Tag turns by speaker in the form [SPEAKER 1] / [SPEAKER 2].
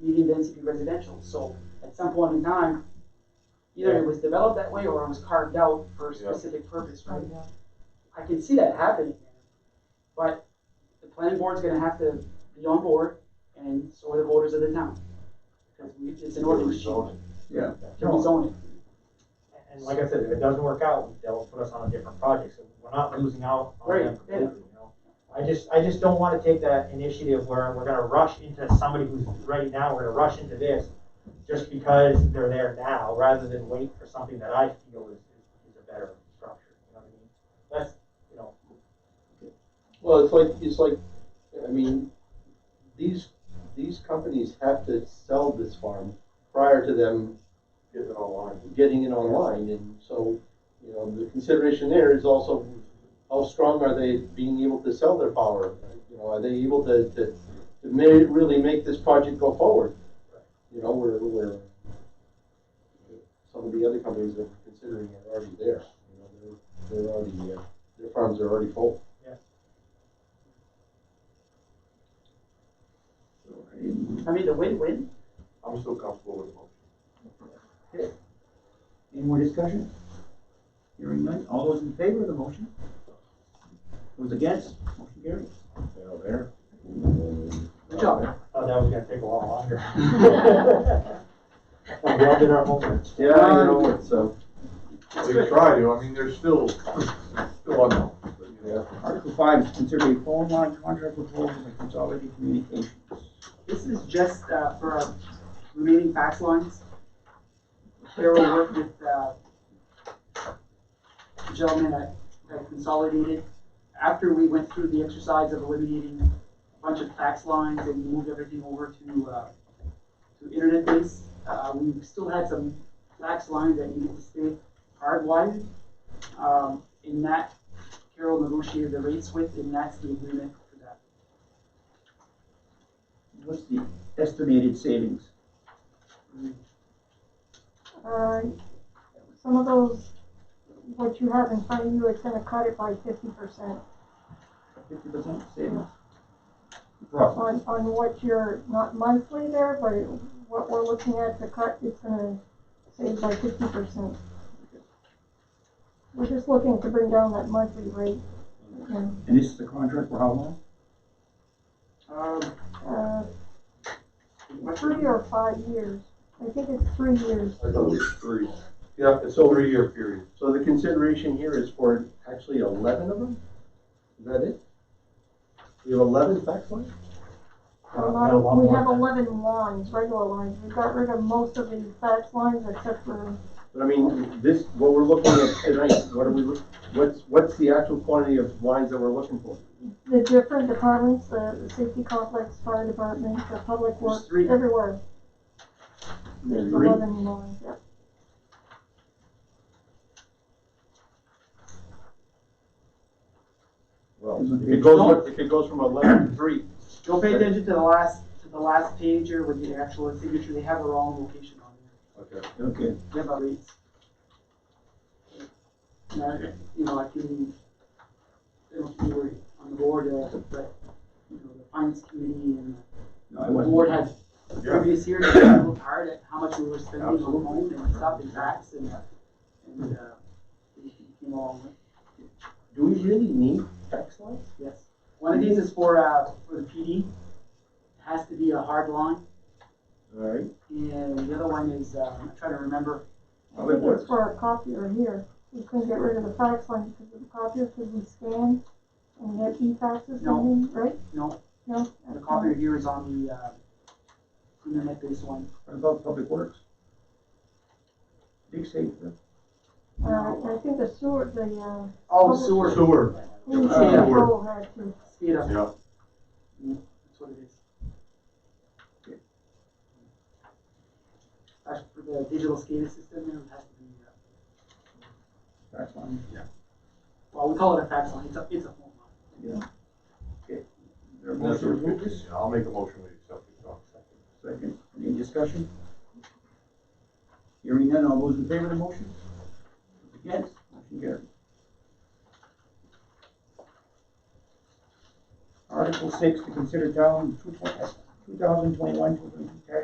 [SPEAKER 1] medium density residential, so at some point in time, either it was developed that way or it was carved out for a
[SPEAKER 2] Yeah.
[SPEAKER 1] specific purpose, right?
[SPEAKER 3] yeah.
[SPEAKER 1] I can see that happening, but the planning board's gonna have to be on board, and so are the voters of the town. Because we, it's an ordinance change,
[SPEAKER 4] Yeah.
[SPEAKER 1] to rezone it.
[SPEAKER 5] And like I said, if it doesn't work out, they'll put us on a different project, so we're not losing out on them
[SPEAKER 1] Right, yeah.
[SPEAKER 5] completely, you know? I just, I just don't wanna take that initiative where we're gonna rush into somebody who's, right now, we're gonna rush into this just because they're there now, rather than wait for something that I feel is, is a better structure, you know what I mean? That's, you know,
[SPEAKER 4] Well, it's like, it's like, I mean, these, these companies have to sell this farm prior to them
[SPEAKER 2] Get it online.
[SPEAKER 4] getting it online, and so, you know, the consideration there is also how strong are they being able to sell their power? You know, are they able to, to, to ma- really make this project go forward? You know, where, where some of the other companies that we're considering are already there, you know, they're, they're already, uh, their farms are already full.
[SPEAKER 1] I mean, the win-win,
[SPEAKER 2] I'm still comfortable with the motion.
[SPEAKER 6] Any more discussion? Hearing none, all those in favor of the motion? Those against, motion carries.
[SPEAKER 4] there.
[SPEAKER 1] good job.
[SPEAKER 5] oh, that was gonna take a lot longer. We all did our homework.
[SPEAKER 4] Yeah, you know, it's, uh,
[SPEAKER 2] They try to, I mean, they're still, still unknown, but you know.
[SPEAKER 6] Article five is consider a phone line contract proposal with Consolidated Communications.
[SPEAKER 1] This is just, uh, for our remaining fax lines. Carol worked with, uh, the gentleman at, at Consolidated. After we went through the exercise of eliminating a bunch of fax lines and moved everything over to, uh, to internet base, uh, we still had some fax lines that needed to stay hardwired. Um, in that, Carol negotiated the rates with, and that's the agreement for that.
[SPEAKER 6] What's the estimated savings?
[SPEAKER 3] Uh, some of those, what you have in front of you, it's gonna cut it by fifty percent
[SPEAKER 6] Fifty percent savings? Roughly.
[SPEAKER 3] on, on what you're, not monthly there, but what we're looking at to cut, it's gonna save by fifty percent. We're just looking to bring down that monthly rate. And,
[SPEAKER 6] And this is the contract for how long?
[SPEAKER 1] Um,
[SPEAKER 3] uh, three or five years, I think it's three years.
[SPEAKER 2] I thought it was three. Yeah, it's a three-year period.
[SPEAKER 4] so the consideration here is for actually eleven of them? Is that it? We have eleven fax lines?
[SPEAKER 3] A
[SPEAKER 5] Uh,
[SPEAKER 3] lot
[SPEAKER 5] no,
[SPEAKER 3] of,
[SPEAKER 5] one
[SPEAKER 3] we
[SPEAKER 5] more.
[SPEAKER 3] have eleven lines, regular lines, we got rid of most of the fax lines except for,
[SPEAKER 4] But I mean, this, what we're looking at tonight, what are we, look- what's, what's the actual quantity of lines that we're looking for?
[SPEAKER 3] the different departments, the the safety complex, fire department, the public works,
[SPEAKER 1] There's three.
[SPEAKER 3] everywhere. There's
[SPEAKER 4] Three.
[SPEAKER 3] eleven lines, yeah.
[SPEAKER 4] Well, if it goes, if it goes from eleven to three,
[SPEAKER 1] Don't pay attention to the last, to the last page here with the actual signature, they have the wrong location on there,
[SPEAKER 2] Okay.
[SPEAKER 6] Okay,
[SPEAKER 1] they have our rates. And I- you know, I can, they don't have to worry on the board, uh, but, you know, the finance committee and
[SPEAKER 6] no, I
[SPEAKER 1] the
[SPEAKER 6] wasn't.
[SPEAKER 1] board had previous years, they looked hard at how much we were spending on
[SPEAKER 2] Absolutely.
[SPEAKER 1] home and stuff and tax and, uh, and, uh, it came along with,
[SPEAKER 4] do we really need fax lines?
[SPEAKER 1] yes. One of these is for, uh, for the PD, it has to be a hard line.
[SPEAKER 4] Alright.
[SPEAKER 1] And the other one is, uh, I'm trying to remember,
[SPEAKER 6] Public
[SPEAKER 3] It's
[SPEAKER 6] Works.
[SPEAKER 3] for our copier here, we couldn't get rid of the fax line because of the copier, because we scan and get e-faxes
[SPEAKER 1] No.
[SPEAKER 3] coming, right?
[SPEAKER 1] no,
[SPEAKER 3] No?
[SPEAKER 1] the copier here is on the, uh, internet based one.
[SPEAKER 6] What about Public Works? Big savings. huh?
[SPEAKER 3] Uh, I think the sewer, the, uh,
[SPEAKER 1] Oh, sewer.
[SPEAKER 2] Sewer.
[SPEAKER 3] clean
[SPEAKER 2] Uh,
[SPEAKER 3] control had to.
[SPEAKER 1] Speed up, Mm,
[SPEAKER 2] Yeah.
[SPEAKER 1] that's what it is. As for the digital SCADA system, there has to be, uh,
[SPEAKER 6] That's fine.
[SPEAKER 1] well, we call it a fax line, it's a, it's a phone line.
[SPEAKER 6] Is there a motion to approve this?
[SPEAKER 2] Yeah, I'll make a motion to accept the contract.
[SPEAKER 6] Second, any discussion? Hearing none, all those in favor of the motion? Against, motion carried. Article six, to consider town two thousand uh, twenty-one, two thousand twenty-two tax